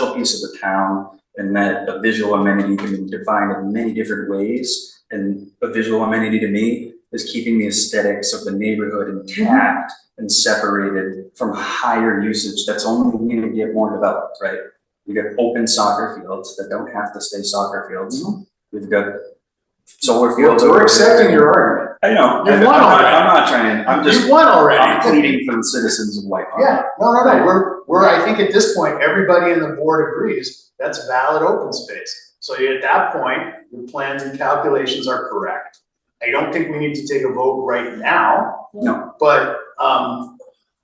central piece of the town and that a visual amenity can be defined in many different ways. And a visual amenity to me is keeping the aesthetics of the neighborhood intact and separated from higher usage that's only going to get more developed, right? We got open soccer fields that don't have to stay soccer fields. We've got solar fields. Mm-hmm. We're over accepting there. your argument. I know, I'm You've won not, already. I'm not trying, I'm just, You won I'm already. pleading for the citizens of White Pond. Yeah, no, no, no, we're, we're, I think at this point, everybody in the board agrees, that's valid open space. So you- at that point, your plans and calculations are correct. I don't think we need to take a vote right now. No. But, um,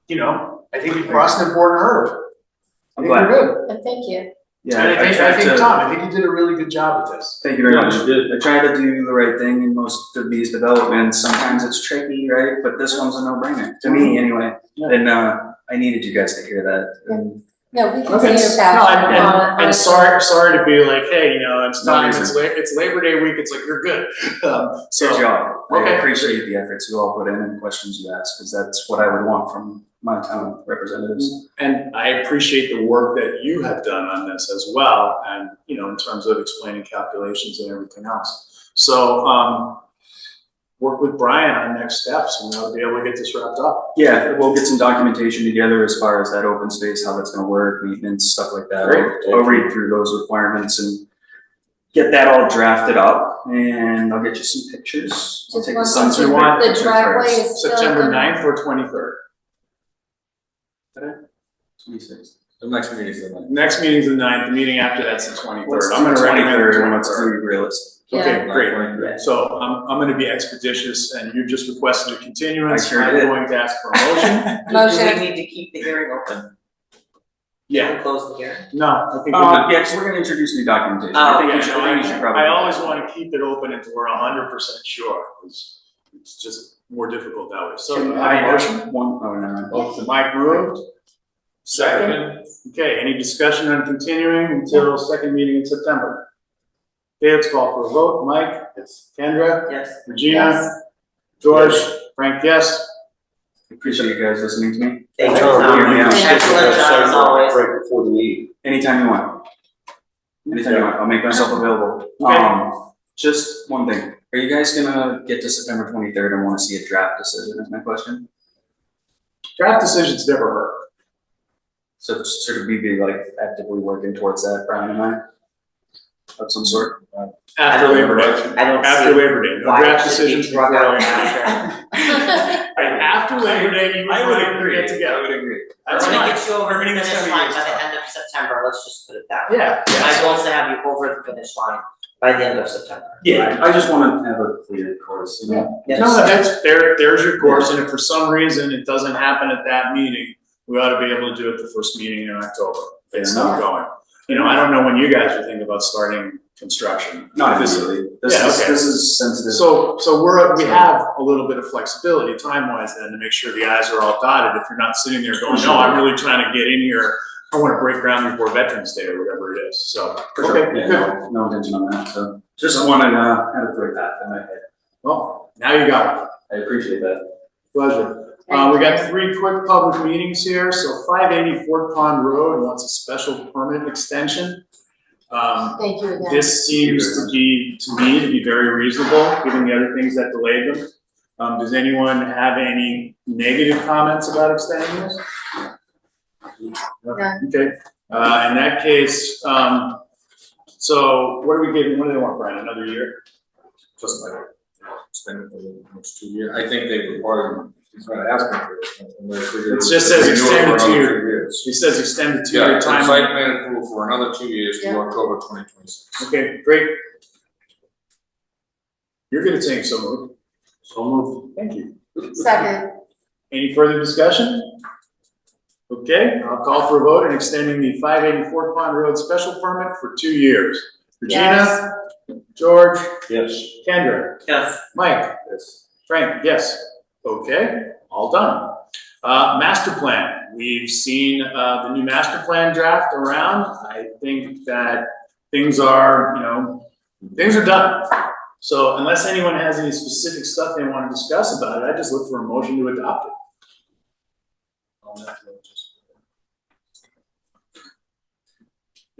you know, I think you crossed an important hurdle. I I'm think you're glad, good. But thank you. yeah. And I think, tried I think, to- Tom, I think you did a really good job with this. Thank you very Yeah, much. you did. I try to do the right thing in most of these developments. Sometimes it's tricky, right? But this one's a no-brainer, to me anyway. Yeah. And uh, I needed you guys to hear that. And No, we can Okay. see your Uh, No, passion and- on on- and, and sorry, sorry to be like, hey, you know, it's No time, reason. it's la- it's Labor Day week, it's like, you're good. Um, good so, job. I Okay. appreciate the efforts you all put in and questions you asked, because that's what I would want from my town representatives. And I appreciate the work that you have done on this as well, and, you know, in terms of explaining calculations and everything else. So, um, work with Brian on next steps, and I'll be able to get this wrapped up. Yeah, we'll get some documentation together as far as that open space, how that's gonna work, maintenance, stuff like that. Great. I'll read through those requirements and get that all drafted up and I'll get you some pictures. I'll Just take the one sunset picture. ray The picture driveway first. is still. September in- ninth or twenty-third. Twenty-six. The next meeting is the ninth. Next meeting's the ninth, the meeting after that's the twenty-third. I'm gonna recommend the third, let's do realistic. Yeah. Okay, great. Yeah. So I'm, I'm gonna be expeditious, and you just requested a continuance. I sure did. I'm going to ask for a motion. Motion. Do we need to keep the hearing open? Yeah, Close the hearing? no, I think we can- Uh, yeah, we we're gonna introduce new documentation, Oh, I think Yeah, you should, no, I think you should I, probably. I always wanna keep it open until we're hundred percent sure, it's, it's just more difficult that way, so. do I have a I motion? have one, oh, never mind. Mike moved. Second. Okay, any discussion on continuing until second meeting in September? Okay, let's call for a vote, Mike? Yes. Kendra? Yes. Regina? Yes. George? Frank, yes? Appreciate you guys listening to me, Thank you, Tom. Tom. Yeah. Excellent job as always. anytime you want. Anytime you want, I'll make myself available. Okay. Um, just one thing, are you guys gonna get to September twenty-third and wanna see a draft decision, is my question? Draft decisions never hurt. So sort of we be like actively working towards that, Brian and I? Of some sort? After Labor Day. I don't After see Labor Day, no why draft it should decisions be drug before out Labor Day. now. And After Labor Day, you and Brian would get together. would agree. I That's wanna fine. get you over the Everything that's finish coming line is by the tough. end of September, let's just put it that way. Yeah, My goal is to have you over the finish line by the end of September. Yeah, I just wanna have a clear course, you know? Yes. No, that's, there, there's your course, and if for some reason it doesn't happen at that meeting, we ought to be able to do it the first meeting in October. It's not going. You know, I don't know when you guys would think about starting construction. Not This- really. This Yeah, is, okay. this is sensitive. So, so we're, we have a little bit of flexibility time-wise then to make sure the i's are all dotted. If you're not sitting there going, no, I'm really trying to get in here. I wanna break ground before Veterans Day or whatever it is, so. For sure. okay, Yeah, good. no, no intention on that, so just wanted to have a clear path in my head. Well, now you got it. I appreciate that. Pleasure. Uh, we got three quick public meetings here, so five eighty Fort Pond Road wants a special permit extension. Um, Thank you again. this seems to be, to me, to be very reasonable, given the other things that delayed them. Um, does anyone have any negative comments about extending this? None. Okay, uh, in that case, um, so what are we giving, what do they want, Brian, another year? Just like, it's been for the next two years, I think they require, he's not asking for it. and they're figuring- It just says They do it for extend it to another your- two years. He says extend the Yeah, two-year and time. site plan approval for another two years to Yeah. October twenty twenty-six. Okay, great. You're gonna take so moved. So moved. Thank you. Second, Any further discussion? Okay, I'll call for a vote in extending the five eighty-four Pond Road special permit for two years. yes. Regina, George, Yes. Kendra, Yes. Mike, Yes. Frank, yes. Okay, all done. Uh, master plan, we've seen, uh, the new master plan draft around. I think that things are, you know, things are done. So unless anyone has any specific stuff they wanna discuss about it, I just look for a motion to adopt it.